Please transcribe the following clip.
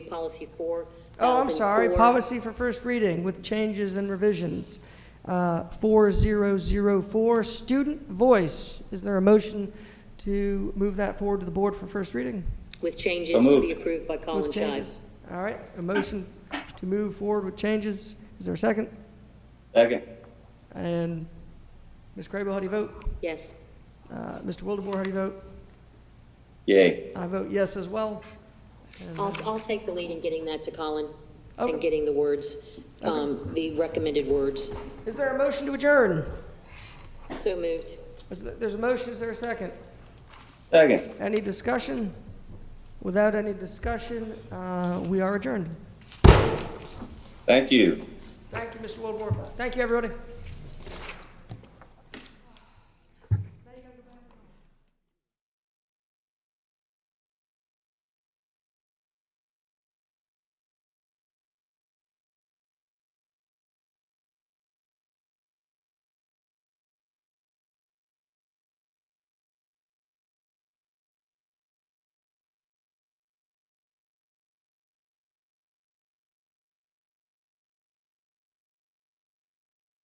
policy four Oh, I'm thousand sorry, four. policy for first reading with changes and revisions. Uh, 4004, student voice. Is there a motion to move that forward to the board for first reading? With changes to moved. be approved by Colin With Shives. changes. All right, a motion to move forward with changes. Is there a second? Second. And Ms. Crable, how do you vote? Yes. Uh, Mr. Wildebohr, how do you vote? Yay. I vote yes as well. And, uh, I'll, I'll take the lead in getting that to Colin and Okay. getting the words, um, the recommended words. Is there a motion to adjourn? So moved. Is there- There's a motion, is there a second? Second. Any discussion? Without any discussion, uh, we are adjourned. Thank you. Thank you, Mr. Wildebohr. Thank you, everybody.